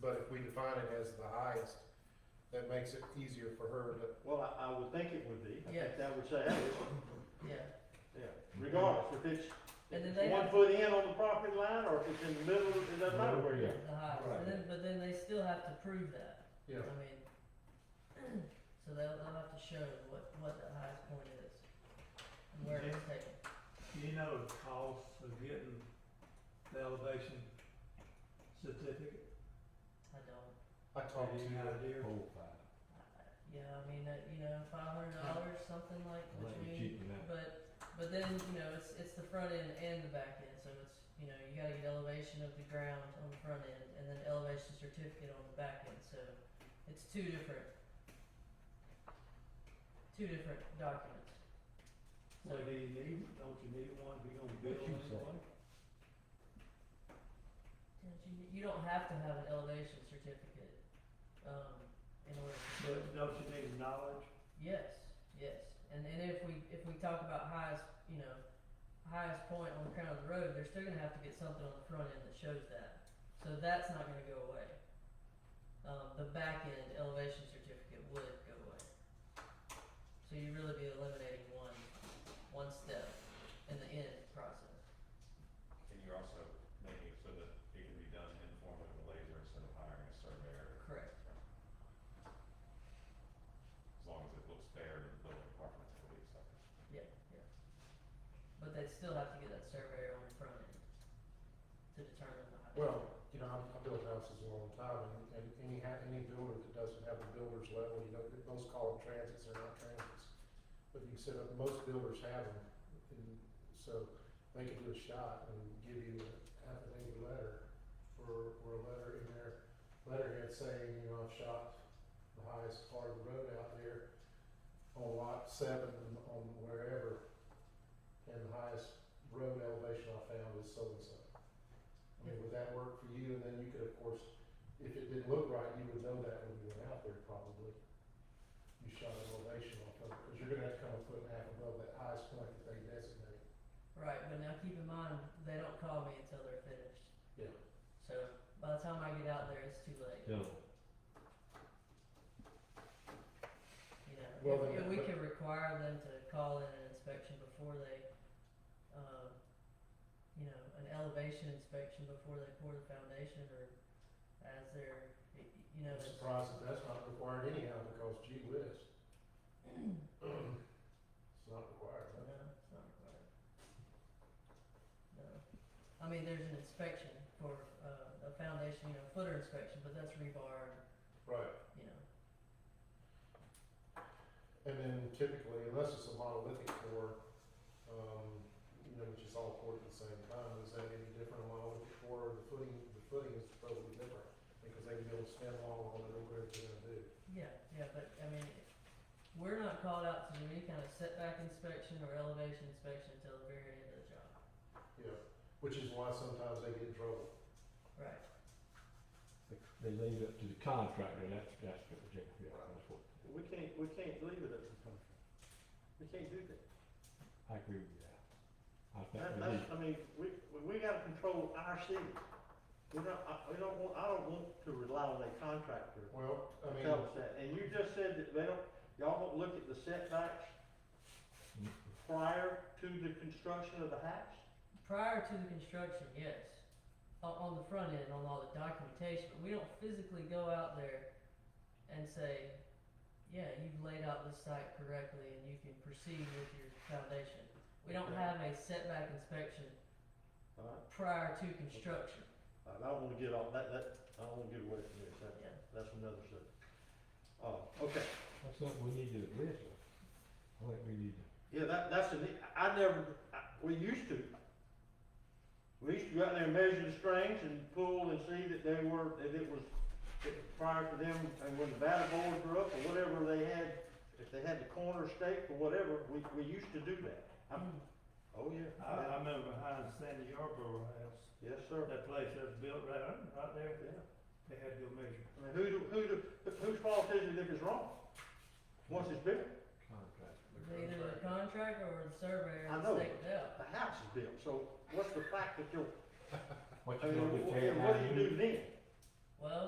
but if we define it as the highest, that makes it easier for her to, Well, I, I would think it would be. I Yes. think that would say, hey, yeah. yeah, regardless, if it's, And then if they it's one have- foot in on the property line or if it's in the middle, it doesn't matter where you are. The highest, Right. but then, but then they still have to prove that. you I mean, so they'll, they'll have to show what, what the highest point is and where it's taken. You know the cost of getting the elevation certificate? I don't, I Oh, talked to Any you. idea? I- yeah, I mean, uh, you know, five hundred dollars, something like, which Let you we, keep it up. but, but then, you know, it's, it's the front end and the back end, so it's, you know, you gotta get elevation of the ground on the front end and then elevation certificate on the back end, so it's two different, two different documents. So, Well, do you need, don't you need one if you're gonna build What you say? anything? Don't You you don't have to have an elevation certificate, um, in order to do it. But don't you need knowledge? Yes, yes, and and if we if we talk about highest, you know, highest point on the crown of the road, they're still gonna have to get something on the front end that shows that. So that's not gonna go away. Um, the back end elevation certificate would go away. So you'd really be eliminating one, one step in the end process. And you're also making it so that it can be done informally with a laser instead of hiring a surveyor, Correct. as long as it looks fair to the building department, I believe, so. Yeah, yeah. But they'd still have to get that surveyor on the front end to determine the height. Well, you know, I- I built houses a long time, and, and any, ha- any builder that doesn't have a builder's level, you know, those call them transits, they're not transits. But you said that most builders have them, and so they can do a shot and give you a half an acre letter, or, or a letter in their letterhead saying, you know, I've shot the highest part of the road out there on lot seven, and on wherever, and the highest road elevation I found is so-and-so. I mean, would that work for you? And then you could, of course, if it didn't look right, you would know that when you went out there probably. You shot an elevation off of it, because you're gonna have to come a foot and a half above that highest point that they designate. Right, but now keep in mind, they don't call me until they're finished. Yeah. So by the time I get out there, it's too late, So, you know. Well, If- then- if we can require them to call in an inspection before they, um, you know, an elevation inspection before they pour the foundation or as they're, y- y- you know, I'm it's- surprised that that's not required anyhow, because gee whiz. It's not required, No, huh? it's not required. No. I mean, there's an inspection for, uh, a foundation, you know, footer inspection, but that's rebar, and, Right. you know, And then typically, unless it's a monolithic core, um, you know, which is all poured at the same time, is that any different on monolithic core, the footing, the footing is probably different, because they can build a stem wall on it or whatever they're gonna do. yeah, yeah, but, I mean, we're not called out to do any kind of setback inspection or elevation inspection until the very end of the job. Yeah, which is why sometimes they get in trouble. Right. they leave it to the contractor, that's, that's, the- yeah, yeah, that's what, We can't, we can't leave it at the country. We can't do that. I agree with that. I That, think we that's, need, I mean, we, we- we gotta control our city. We don't, I, we don't want, I don't want to rely on a contractor Well, I to mean, tell us that. And you just said that they don't, y'all don't look at the setbacks Mm. prior to the construction of the house? Prior to the construction, yes, on, on the front end, on all the documentation, but we don't physically go out there and say, yeah, you've laid out this site correctly and you can proceed with your foundation. We don't Okay. have a setback inspection All right. prior to construction, I don't wanna get off, that, that, I don't wanna get away from this. That, yeah. that's another subject. Oh, okay. that's something we need to address. I think we need to, Yeah, that, that's the, ne- I never, I, we used to. We used to go out there and measure the strings and pull and see that they were, that it was, that prior to them, and when the batter boards were up or whatever they had, if they had the corner stake or whatever, we, we used to do that. I'm, oh yeah. I, I remember behind Sandy Yarborough House, Yes, sir. that place that was built right, on- right there, Yeah. they had to go measure. I mean, who do, who do, whose fault is it if it's wrong? Once it's built, contractor, Either the contractor or the surveyor I has know. staked it out. the house is built, so what's the fact that you're, what I mean, you gonna do, what tear it what do down? you do then? Well,